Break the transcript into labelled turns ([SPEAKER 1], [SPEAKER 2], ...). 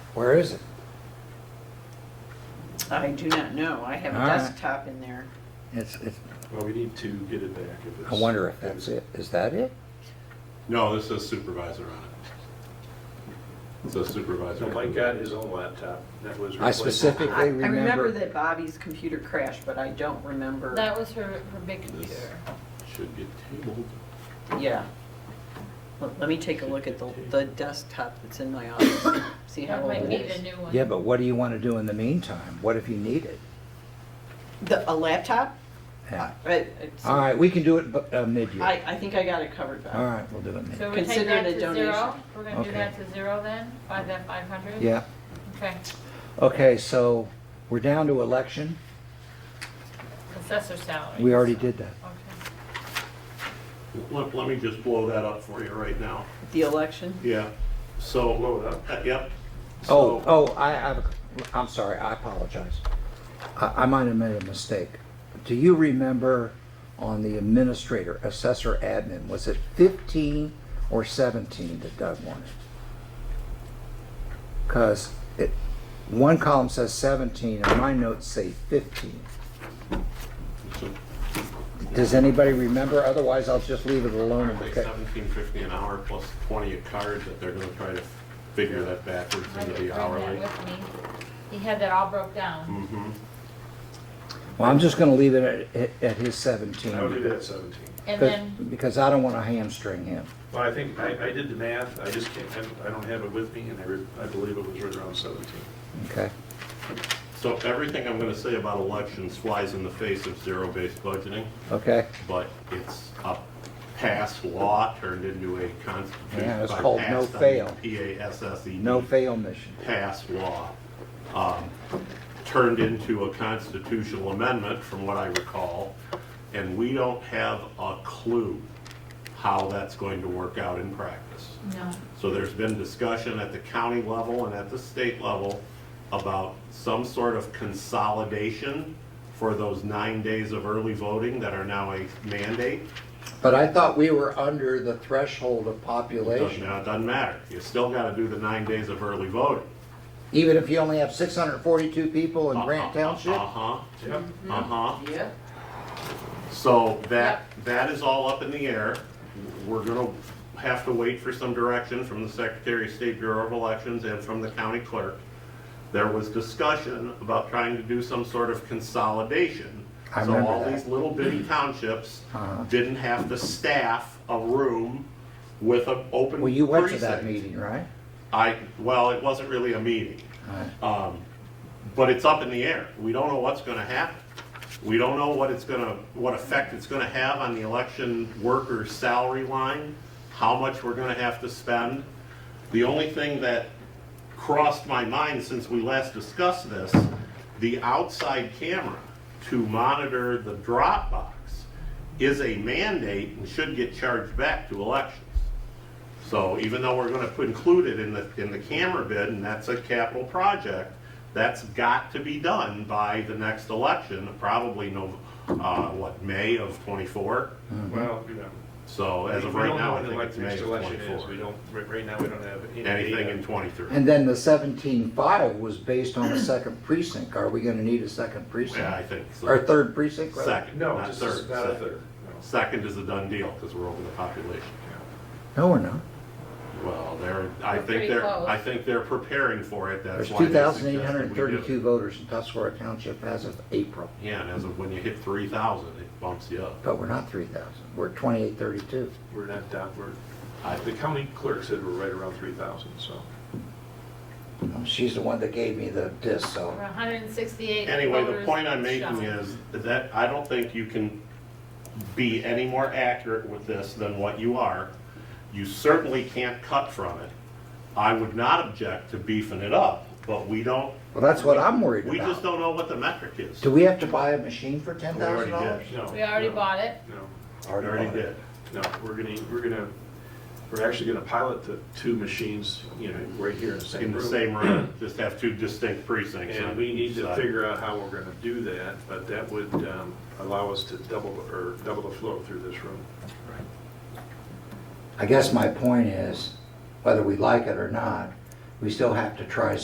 [SPEAKER 1] Where is it?
[SPEAKER 2] I do not know. I have a
[SPEAKER 1] All right.
[SPEAKER 2] desktop in there.
[SPEAKER 1] It's, it's,
[SPEAKER 3] Well, we need to get it back if it's.
[SPEAKER 1] I wonder if that's it. Is that it?
[SPEAKER 4] No, this says supervisor on it. It says supervisor.
[SPEAKER 3] So Mike got his own laptop that was.
[SPEAKER 1] I
[SPEAKER 3] replaced.
[SPEAKER 2] I,
[SPEAKER 1] specific- If they
[SPEAKER 2] I remember
[SPEAKER 1] remember-
[SPEAKER 2] that Bobby's computer crashed, but I don't remember.
[SPEAKER 5] That was her, her big
[SPEAKER 4] This
[SPEAKER 5] computer.
[SPEAKER 4] should get tabled.
[SPEAKER 2] Yeah. Let, let me take a look at the, the desktop that's in my office, see how
[SPEAKER 5] That
[SPEAKER 2] old
[SPEAKER 5] might
[SPEAKER 2] it
[SPEAKER 5] need a
[SPEAKER 2] is.
[SPEAKER 5] new one.
[SPEAKER 1] Yeah, but what do you want to do in the meantime? What if you need it?
[SPEAKER 2] The, a laptop?
[SPEAKER 1] Yeah.
[SPEAKER 2] Uh, it's-
[SPEAKER 1] All right, we can do it bu- uh,
[SPEAKER 2] I,
[SPEAKER 1] mid-year.
[SPEAKER 2] I think I got it covered,
[SPEAKER 1] All
[SPEAKER 2] Bob.
[SPEAKER 1] right, we'll do it mid,
[SPEAKER 5] So we take
[SPEAKER 2] Consider
[SPEAKER 5] that
[SPEAKER 2] it a
[SPEAKER 5] to zero,
[SPEAKER 2] donation.
[SPEAKER 5] we're gonna
[SPEAKER 1] Okay.
[SPEAKER 5] do that to zero then, by that five hundred?
[SPEAKER 1] yeah.
[SPEAKER 5] Okay,
[SPEAKER 1] Okay, so we're down to election.
[SPEAKER 5] assessor salary.
[SPEAKER 1] We already did that.
[SPEAKER 5] Okay.
[SPEAKER 6] Let, let me just blow that up for you right now.
[SPEAKER 2] The election?
[SPEAKER 6] Yeah, so,
[SPEAKER 3] Blow it up.
[SPEAKER 6] uh, yep.
[SPEAKER 1] Oh,
[SPEAKER 6] So-
[SPEAKER 1] oh, I have, a- I'm sorry, I apologize. I, I might have made a mistake. Do you remember on the administrator, assessor admin, was it 15 or 17 that Doug wanted? Because it, one column says 17 and my notes say 15.
[SPEAKER 4] So,
[SPEAKER 1] Does anybody remember? Otherwise, I'll just leave it alone. and
[SPEAKER 4] Like
[SPEAKER 1] okay.
[SPEAKER 4] seventeen fifty an hour plus twenty a card that they're gonna try to figure that backwards
[SPEAKER 5] I
[SPEAKER 4] into
[SPEAKER 5] didn't
[SPEAKER 4] the
[SPEAKER 5] bring
[SPEAKER 4] hourly.
[SPEAKER 5] that with me. He had that all broke down.
[SPEAKER 4] Mm-hmm.
[SPEAKER 1] Well, I'm just going to leave it at, at- at his 17.
[SPEAKER 3] I would do that at seventeen.
[SPEAKER 1] Because-
[SPEAKER 5] And then,
[SPEAKER 1] Because I don't want to hamstring him.
[SPEAKER 3] Well, I think, I, I did the math, I just can't, I don't have it with me, and I, re- I believe it was right around seventeen.
[SPEAKER 1] Okay?
[SPEAKER 4] So everything I'm gonna say about elections flies in the face of zero-based budgeting,
[SPEAKER 1] Okay?
[SPEAKER 4] but it's a past law turned into a constitution.
[SPEAKER 1] Yeah, it's
[SPEAKER 4] by
[SPEAKER 1] called no
[SPEAKER 4] passed, I mean
[SPEAKER 1] fail.
[SPEAKER 4] P-A-S-S-E.
[SPEAKER 1] No fail mission.
[SPEAKER 4] Pass law, um, turned into a constitutional amendment, from what I recall, and we don't have a clue how that's going to work out in practice.
[SPEAKER 5] no,
[SPEAKER 4] So there's been discussion at the county level and at the state level about some sort of consolidation for those nine days of early voting that are now a mandate.
[SPEAKER 1] But I thought we were under the threshold of
[SPEAKER 4] Doesn't-
[SPEAKER 1] population.
[SPEAKER 4] It doesn't matter, you still gotta do the nine days of early voting.
[SPEAKER 1] Even if you only have 642 people in Grant Township?
[SPEAKER 4] Uh-huh,
[SPEAKER 3] Yep.
[SPEAKER 4] uh-huh.
[SPEAKER 2] Yeah.
[SPEAKER 4] So that, that is all up in the air. We're gonna have to wait for some direction from the Secretary of State Bureau of Elections and from the county clerk. There was discussion about trying to do some sort of consolidation.
[SPEAKER 1] I remember
[SPEAKER 4] So all
[SPEAKER 1] that.
[SPEAKER 4] these little bitty townships
[SPEAKER 1] Uh-huh.
[SPEAKER 4] didn't have to staff a room with an open precinct.
[SPEAKER 1] Well, you went to that meeting, right?
[SPEAKER 4] I, well, it wasn't really a meeting. Um, But it's up in the air. We don't know what's gonna happen. We don't know what it's gonna, what effect it's gonna have on the election worker's salary line, how much we're gonna have to spend. The only thing that crossed my mind since we last discussed this, the outside camera to monitor the drop box is a mandate and should get charged back to elections. So even though we're gonna put- include it in the, in the camera bid, and that's a capital project, that's got to be done by the next election, probably no, uh, what, May of twenty-four?
[SPEAKER 3] Well, you know.
[SPEAKER 4] So as of
[SPEAKER 3] we
[SPEAKER 4] right
[SPEAKER 3] don't
[SPEAKER 4] now,
[SPEAKER 3] know
[SPEAKER 4] I
[SPEAKER 3] when the
[SPEAKER 4] think
[SPEAKER 3] elect-
[SPEAKER 4] it's May
[SPEAKER 3] next
[SPEAKER 4] of
[SPEAKER 3] election is. We
[SPEAKER 4] twenty-four.
[SPEAKER 3] don't, right- right now, we don't have any.
[SPEAKER 4] Anything
[SPEAKER 3] data.
[SPEAKER 4] in twenty-three.
[SPEAKER 1] And then the 17.5 was based on a second precinct. Are we going to need a second
[SPEAKER 4] Yeah, I
[SPEAKER 1] precinct?
[SPEAKER 4] think so.
[SPEAKER 1] Or a third precinct? rather?
[SPEAKER 4] Second,
[SPEAKER 3] No,
[SPEAKER 4] not
[SPEAKER 3] just
[SPEAKER 4] third.
[SPEAKER 3] about a
[SPEAKER 4] second.
[SPEAKER 3] third. No.
[SPEAKER 4] Second is a done deal, because we're over the population.
[SPEAKER 1] No, we're not.
[SPEAKER 4] Well, they're, I
[SPEAKER 5] We're pretty
[SPEAKER 4] think they're,
[SPEAKER 5] close.
[SPEAKER 4] I think they're preparing for it, that's
[SPEAKER 1] There's
[SPEAKER 4] why they suggested we do.
[SPEAKER 1] 2,832 voters in Tuscarora Township as of April,
[SPEAKER 4] Yeah, and as of when you hit three thousand, it bumps you up.
[SPEAKER 1] but we're not 3,000. We're 2,832.
[SPEAKER 3] We're not down, we're,
[SPEAKER 4] I
[SPEAKER 3] the county clerk said we're right around three thousand, so.
[SPEAKER 1] She's the one that gave me the disc, so.
[SPEAKER 5] we're hundred and sixty-eight
[SPEAKER 4] Anyway, the
[SPEAKER 5] voters
[SPEAKER 4] point I'm making
[SPEAKER 5] shown.
[SPEAKER 4] is that I don't think you can be any more accurate with this than what you are. You certainly can't cut from it. I would not object to beefing it up, but we don't,
[SPEAKER 1] Well, that's what I'm worried
[SPEAKER 4] we just
[SPEAKER 1] about.
[SPEAKER 4] don't know what the metric is.
[SPEAKER 1] Do we have to buy a machine for $10,000?
[SPEAKER 4] We already did.
[SPEAKER 3] No.
[SPEAKER 5] We already
[SPEAKER 3] no,
[SPEAKER 5] bought it.
[SPEAKER 3] No,
[SPEAKER 4] We already did.
[SPEAKER 3] no, we're gonna, we're gonna, we're actually gonna pilot the two machines, you know, right here in the same
[SPEAKER 4] In
[SPEAKER 3] room.
[SPEAKER 4] the same room, just have two distinct precincts.
[SPEAKER 3] And
[SPEAKER 4] on
[SPEAKER 3] we need
[SPEAKER 4] each
[SPEAKER 3] to
[SPEAKER 4] side.
[SPEAKER 3] figure out how we're gonna do that, but that would um, allow us to double, or double the flow through this room.
[SPEAKER 1] I guess my point is, whether we like it or not, we still have to try